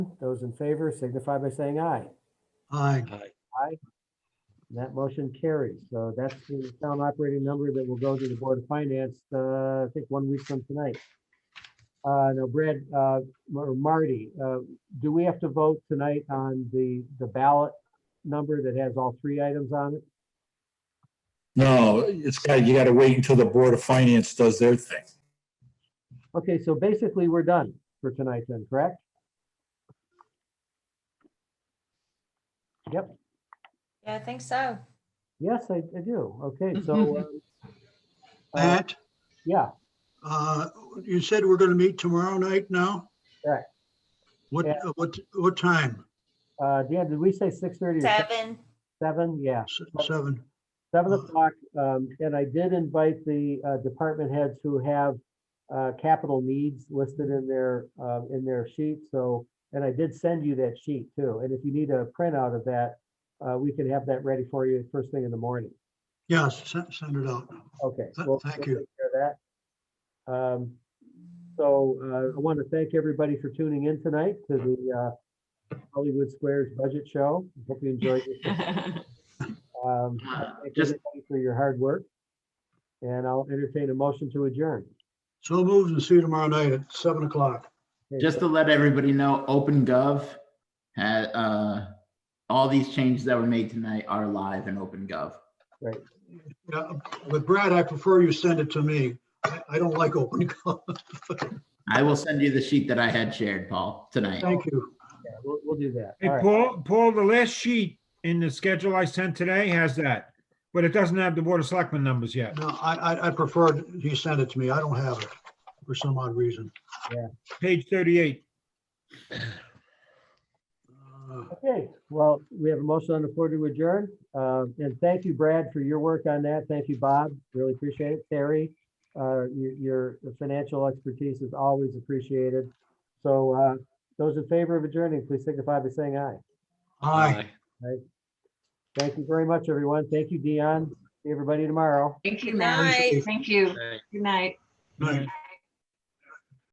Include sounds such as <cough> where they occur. Those in favor signify by saying aye. Aye. Uh, Aye. That motion carries. So that's the town operating number that will go to the Board of Finance, uh, I think one week from tonight. Uh, now Brad, uh, or Marty, uh, do we have to vote tonight on the, the ballot number that has all three items on it? No, it's got, you gotta wait until the Board of Finance does their thing. Okay, so basically we're done for tonight then, correct? Yeah, I think so. Yes, I, I do. Okay, so, uh, uh, Matt, yeah, uh, you said we're going to meet tomorrow night now? Correct. What, uh, Yeah. what, what time? uh, Dan, did we say six thirty or se- Seven. seven? Yeah. S- Seven? Seven Uh, o'clock, um, and I did invite the, uh, department heads who have, uh, capital needs listed in their, uh, in their sheet, so, and I did send you that sheet too, and if you need a printout of that, uh, we can have that ready for you first thing in the morning. Yes, se- send it out. Okay. Th- well, thank we'll you. take care of That. Um, So uh, I want to thank everybody for tuning in tonight to the uh, Hollywood Squares Budget Show. Hope you enjoyed <laughs> it. Uh, Um, I Thank Just- everybody For your hard work. And I'll entertain a motion to adjourn. So moved and see you tomorrow night at seven o'clock. Okay, Just to let everybody know, OpenGov had, uh, all these changes that were made tonight are live in OpenGov. Yeah, But Brad, I prefer you send it to me. I I don't like open <laughs> call. I will send you the sheet that I had shared, Paul, tonight. Thank you. yeah, We'll, we'll do that. Hey, All right. Paul, Paul, the last sheet in the schedule I sent today has that, but it doesn't have the Board of Selectmen numbers yet. No, I, I- I prefer he send it to me. I don't have it for some odd reason. Page 38. Uh, Okay, well, we have a motion on the floor to adjourn. Uh, And thank you, Brad, for your work on that. Thank you, Bob. Really appreciate it. Terry, uh, your your financial expertise is always appreciated. So uh, those in favor of adjourning, please signify by saying aye. Aye. Thank you very much, everyone. Thank you, Dion. See everybody tomorrow. Thank you, Good Matt. night. Thank you. Aye. Good night. Night.